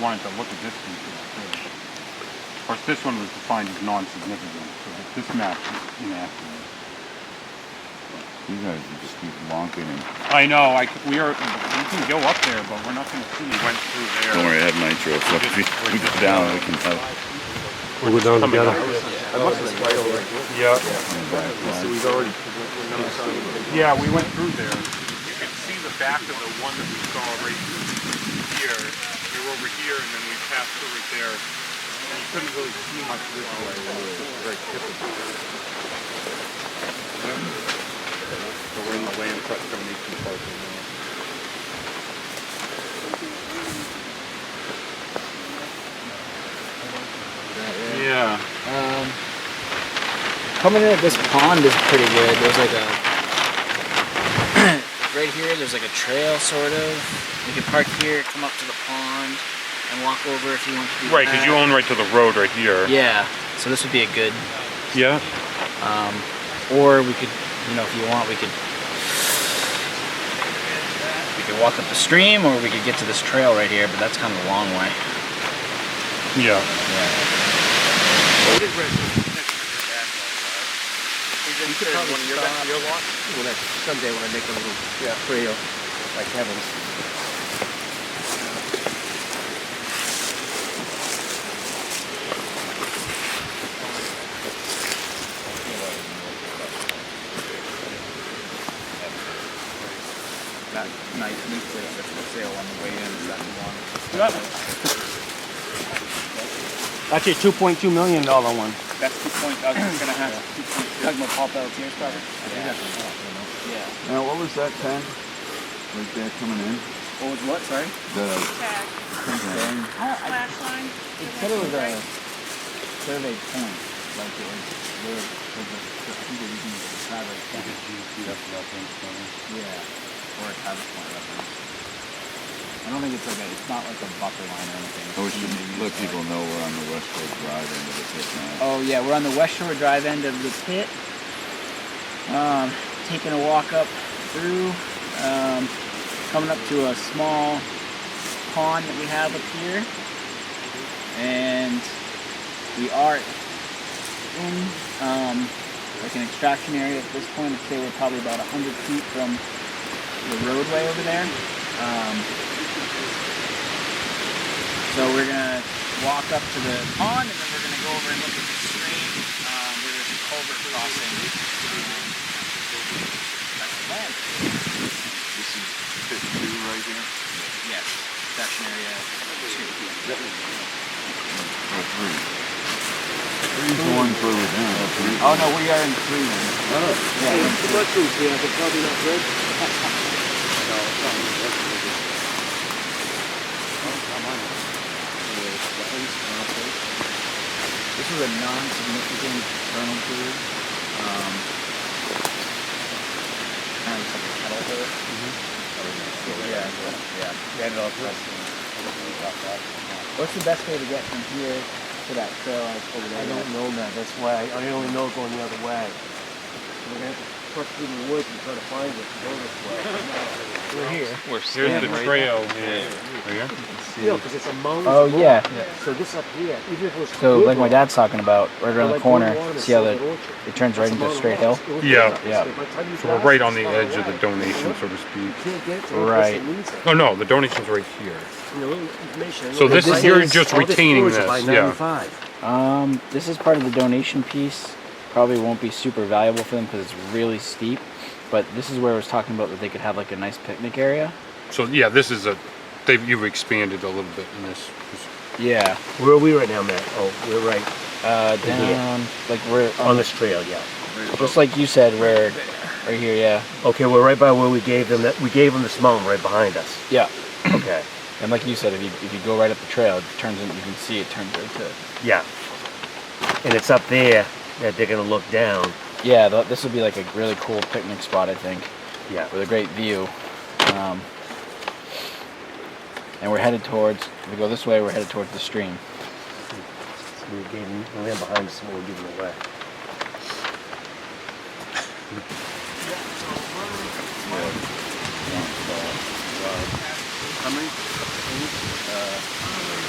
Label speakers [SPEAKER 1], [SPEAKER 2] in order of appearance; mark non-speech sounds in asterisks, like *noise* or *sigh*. [SPEAKER 1] wanted to look at this one too. too. Of course, this one was defined as non-significant, so that this map is inaccurate.
[SPEAKER 2] You guys are just keep bonking and.
[SPEAKER 1] I know, I, c- we are, we can go up there, but we're not gonna see. Went through
[SPEAKER 2] Don't worry, I have nitro, so if we we go down, we can help.
[SPEAKER 3] We'll go down together.
[SPEAKER 1] Yeah.
[SPEAKER 2] Back
[SPEAKER 1] Yeah, we went through there. You could see the back of the one that we saw right here. We were over here and then we passed through it there. And you couldn't really see much this way. It was just very typical. So we're in the land trust donation park now. Yeah.
[SPEAKER 4] Um, coming in at this pond is pretty good. There's like a *clears throat* right here. There's like a trail sort of. You can park here, come up to the pond, and walk over if you want to. Do
[SPEAKER 1] Right, because you
[SPEAKER 4] that.
[SPEAKER 1] own right to the road right here.
[SPEAKER 4] Yeah. So this would be a good.
[SPEAKER 1] Yeah.
[SPEAKER 4] Or we could, you know, if you want, we could. We could walk up the stream, or we could get to this trail right here. But that's kind of a long way.
[SPEAKER 1] Yeah.
[SPEAKER 5] You could probably one of your back your lot. When I, someday when I make a little trail, like Kevin's.
[SPEAKER 6] that nice nuclear that's for sale on the way in, is that the one?
[SPEAKER 3] Actually, two point two million dollar one.
[SPEAKER 6] That's two point, I was just gonna ask, two point, you're talking about Paul Pelletier's project? Yeah. Yeah.
[SPEAKER 2] Now, what was that pen? Right there coming in?
[SPEAKER 4] Oh,
[SPEAKER 6] What was what, sorry?
[SPEAKER 2] The,
[SPEAKER 7] tag, flash line.
[SPEAKER 6] It said it was a survey point, like it was, where, where the, the people using the survey point. Yeah, or a Travis point reference. I don't think it's like a, it's not like a buffer line or anything.
[SPEAKER 2] I wish
[SPEAKER 6] It's
[SPEAKER 2] you
[SPEAKER 6] maybe
[SPEAKER 2] oh, let
[SPEAKER 6] just like-
[SPEAKER 2] people know we're on the West Coast Drive end of the pit now.
[SPEAKER 4] Oh yeah, we're on the West Shore Drive end of the pit. Um, taking a walk up through, um, coming up to a small pond that we have up here, and we are in um, like an extraction area at this point. I'd say we're probably about hundred feet from the roadway over there. Um, so we're gonna walk up to the pond and then we're gonna go over and look at the stream. Um, where there's a culvert crossing. Um, that's the plan.
[SPEAKER 2] This is pit two right here?
[SPEAKER 4] Yes, section area
[SPEAKER 2] Or
[SPEAKER 4] two.
[SPEAKER 2] Oh, three? Three's the one further down.
[SPEAKER 4] Oh no, we are in three. Yeah, we're in three. This is a non-significant vernal pool. Um, kind of like a kettle hole. Mm-hmm. Oh, Yeah, yeah. What's the best way to get from here to that trail over there?
[SPEAKER 3] I don't know, man. That's why I, I only know going the other way. We're gonna push through the woods and try to find it. to Go this way.
[SPEAKER 4] We're here.
[SPEAKER 1] Here's the trail here. Oh,
[SPEAKER 3] Yeah, because it's a mountain.
[SPEAKER 4] Oh, yeah.
[SPEAKER 3] So this up here, even if it was.
[SPEAKER 4] So, like my
[SPEAKER 3] Google,
[SPEAKER 4] dad's talking about, right around the
[SPEAKER 3] like going
[SPEAKER 4] corner,
[SPEAKER 3] along the
[SPEAKER 4] see how
[SPEAKER 3] side of
[SPEAKER 4] the,
[SPEAKER 3] orchard.
[SPEAKER 4] it turns right
[SPEAKER 3] That's
[SPEAKER 4] into a
[SPEAKER 3] about
[SPEAKER 4] straight
[SPEAKER 3] a
[SPEAKER 4] hill?
[SPEAKER 3] mile. It was
[SPEAKER 1] Yeah.
[SPEAKER 3] just-
[SPEAKER 4] Yeah.
[SPEAKER 3] by the time you
[SPEAKER 1] So we're
[SPEAKER 3] pass
[SPEAKER 1] right on the
[SPEAKER 3] far
[SPEAKER 1] edge of the
[SPEAKER 3] away,
[SPEAKER 1] donation, so to speak.
[SPEAKER 3] you can't get to it unless
[SPEAKER 4] Right.
[SPEAKER 3] it needs it.
[SPEAKER 1] No, no, the donation's right here.
[SPEAKER 3] You know, information-
[SPEAKER 1] So this
[SPEAKER 4] is-
[SPEAKER 1] you're just
[SPEAKER 3] all this
[SPEAKER 1] retaining
[SPEAKER 3] footage is
[SPEAKER 1] this,
[SPEAKER 3] by
[SPEAKER 1] yeah.
[SPEAKER 3] 95.
[SPEAKER 4] Um, this is part of the donation piece. Probably won't be super valuable for them because it's really steep. But this is where I was talking about that they could have like a nice picnic area.
[SPEAKER 1] So yeah, this is a, they've, you've expanded a little bit in this.
[SPEAKER 4] Yeah.
[SPEAKER 3] Where are we right now, Matt? Oh, we're right
[SPEAKER 4] Uh,
[SPEAKER 3] Right here.
[SPEAKER 4] down like we're
[SPEAKER 3] on this trail, yeah.
[SPEAKER 4] just like you said, we're right here. Yeah.
[SPEAKER 3] Okay, we're right by where we gave them that, we gave them this mountain right behind us.
[SPEAKER 4] *clears throat* Yeah.
[SPEAKER 3] Okay,
[SPEAKER 4] And like you said, if you if you go right up the trail, it turns in. You can see it turns right to.
[SPEAKER 3] yeah. And it's up there that they're gonna look down,
[SPEAKER 4] Yeah. th this would be like a really cool picnic spot, I think,
[SPEAKER 3] yeah.
[SPEAKER 4] with a great view. Um, and we're headed towards. If we go this way, we're headed towards the stream.
[SPEAKER 3] We gave them, the land behind us, and we gave them away.
[SPEAKER 6] How many?